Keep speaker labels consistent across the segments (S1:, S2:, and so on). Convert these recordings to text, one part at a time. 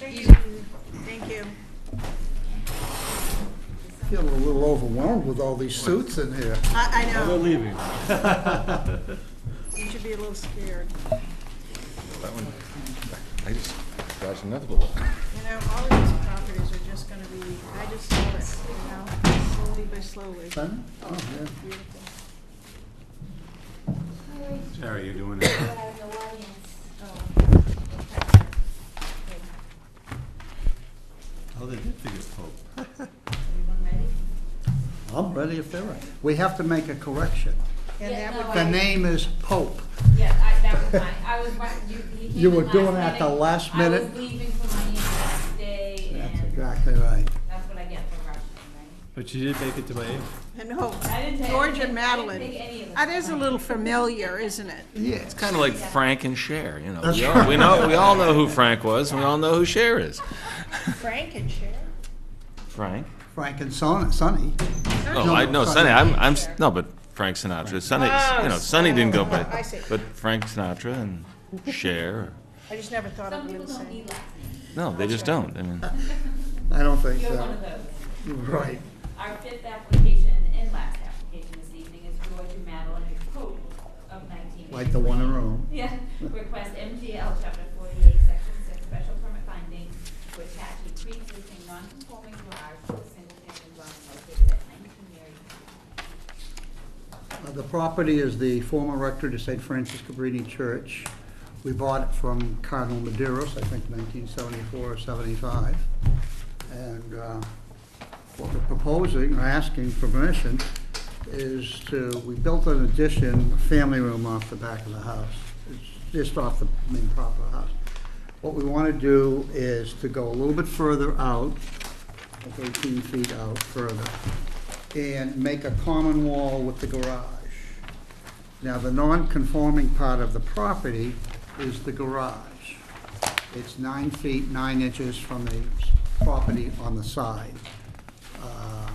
S1: Thank you. Thank you.
S2: Feeling a little overwhelmed with all these suits in here.
S1: I, I
S3: They're
S1: know,
S3: leaving.
S1: you should be a little scared.
S4: That one, I just dodged another bullet.
S1: You know, all of these properties are just gonna be, I just saw it, you know, slowly by slowly.
S2: Huh? Oh, yeah.
S1: Beautiful.
S3: Terry, you're doing it. Oh, they did figure Pope.
S2: I'm ready if they're ready. We have to make a correction.
S1: And
S5: Yeah,
S1: that would,
S5: no,
S2: The name is Pope.
S5: Yeah, I, that was mine, I was, right- you, he came
S2: You were
S5: in last
S2: doing it at the last
S5: I
S2: minute.
S5: was leaving for my last day,
S2: That's
S5: and
S2: exactly right.
S5: that's what I get for rushing,
S3: But you did make it to Miami.
S1: and no,
S5: right? I didn't take. I
S1: Georgia
S5: didn't
S1: Madeline.
S5: take any of
S1: That
S5: them.
S1: is a little familiar, isn't it?
S2: Yeah.
S4: It's kind of like Frank and Cher, you know.
S2: That's
S4: We all,
S2: right.
S4: we know, we all know who Frank was, and we all know who Cher is.
S1: Frank and Cher.
S4: Frank?
S2: Frank and Son- Sonny.
S4: No, I, no, Sonny, I'm, I'm, s- no, but Frank Sinatra, Sonny, you know, Sonny didn't go by,
S1: Oh, I see.
S4: but Frank Sinatra and Cher,
S1: I just never thought
S5: Some
S1: of it
S5: people
S1: the
S5: don't
S1: same.
S5: need last names,
S4: no, they just don't, I mean.
S2: I don't think
S5: you're one
S2: so.
S5: of those.
S2: Right.
S5: Our fifth application and last application this evening is Georgia Madeline Pope of nineteen.
S2: Like the one in Rome.
S5: Yeah, request MGL chapter forty-eight, section six, special permit finding to attach a pre-existing non-conforming garage to a single-family dwelling located at nineteen Mary.
S2: Uh, The property is the former rectory to St. Francis Cabrini Church. We bought it from Cardinal Maderos, I think 1974 or 75. And uh, what we're proposing, or asking for permission, is to, we built an addition, a family room off the back of the house. It's just off the main proper house. What we want to do is to go a little bit further out, like 18 feet out further, and make a common wall with the garage. Now, the non-conforming part of the property is the garage. It's nine feet, nine inches from the s- property on the side. Uh,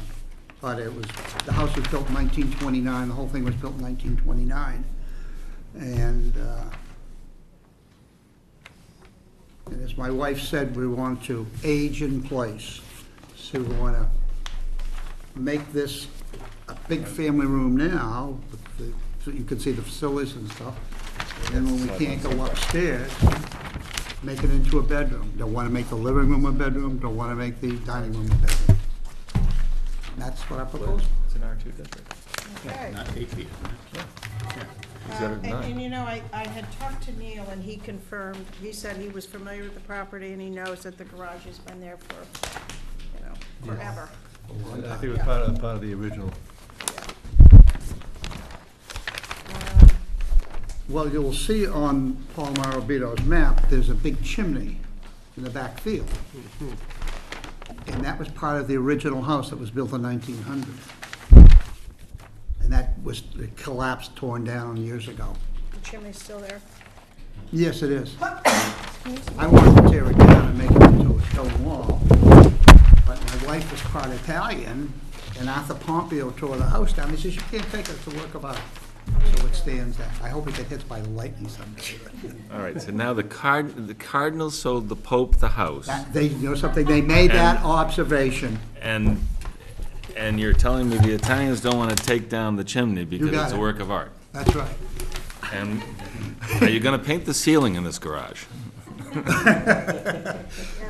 S2: But it was, the house was built in 1929, the whole thing was built in 1929. And uh, and as my wife said, we want to age in place. So we want to make this a big family room now, with the- so you can see the facilities and stuff. And then when we can't go upstairs, make it into a bedroom. Don't want to make the living room a bedroom, don't want to make the dining room a bedroom. And that's what I propose.
S4: It's an R two district.
S1: Okay.
S3: Not eight feet.
S4: Is that
S1: Uh,
S4: a
S1: And,
S4: nine?
S1: and you know, I, I had talked to Neil and he confirmed, he said he was familiar with the property and he knows that the garage has been there for, you know, forever.
S3: I think it was part of, part of the original.
S1: Um,
S2: Well, you'll see on Paul Marabito's map, there's a big chimney in the back field. And that was part of the original house that was built in 1900. And that was it collapsed, torn down years ago.
S1: The chimney's still there.
S2: Yes, it is. I wanted to tear it down and make it into a stone wall, but my wife is part Italian, and Arthur Pompeo tore the house down. He says, you can't take it, it's a work of art. So it stands there. I hope it gets hit by lightning someday.
S4: All right, so now the card, the Cardinal sold the Pope the house,
S2: That- They, you know something, they made that
S4: And-
S2: observation.
S4: and, and you're telling me the Italians don't want to take down the chimney because
S2: got
S4: it's a
S2: it.
S4: work of art?
S2: That's right.
S4: And are you going to paint the ceiling in this garage?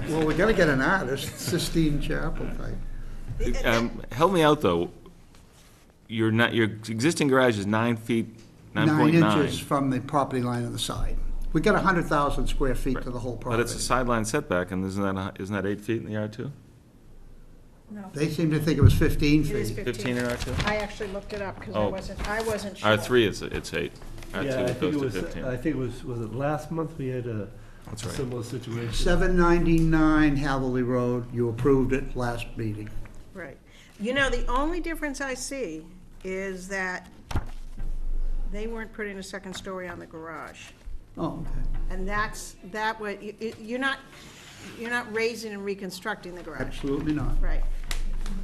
S2: Well, we gotta get an artist, Sistine Chapel type.
S4: Um, Help me out, though. Your, ni- your existing garage is nine feet, nine point
S2: Nine
S4: nine.
S2: inches from the property line on the side. We got a hundred thousand square feet to the whole
S4: But it's a
S2: property.
S4: sideline setback, and isn't that, a- isn't that eight feet in the R two?
S1: No,
S2: They seem to think it was fifteen
S1: it is
S2: feet.
S4: Fifteen
S1: fifteen.
S4: in R two?
S1: I actually looked it up because I
S4: Oh.
S1: wasn't, I wasn't sure.
S4: R three is, it's eight. R two
S3: Yeah, I think it
S4: goes
S3: was, uh,
S4: to
S3: I
S4: fifteen.
S3: think it was, was it last month we had a
S4: That's right.
S3: similar situation?
S2: Seven ninety-nine Haverly Road, you approved it last meeting.
S1: Right. You know, the only difference I see is that they weren't putting a second story on the garage.
S2: Oh, okay,
S1: And that's, that way, you- you, you're not, you're not raising and reconstructing the garage.
S2: absolutely not.
S1: Right.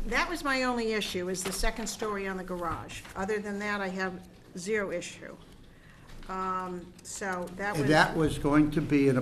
S1: That was my only issue, is the second story on the garage. Other than that, I have zero issue. Um, So that was.
S2: And that was going to be an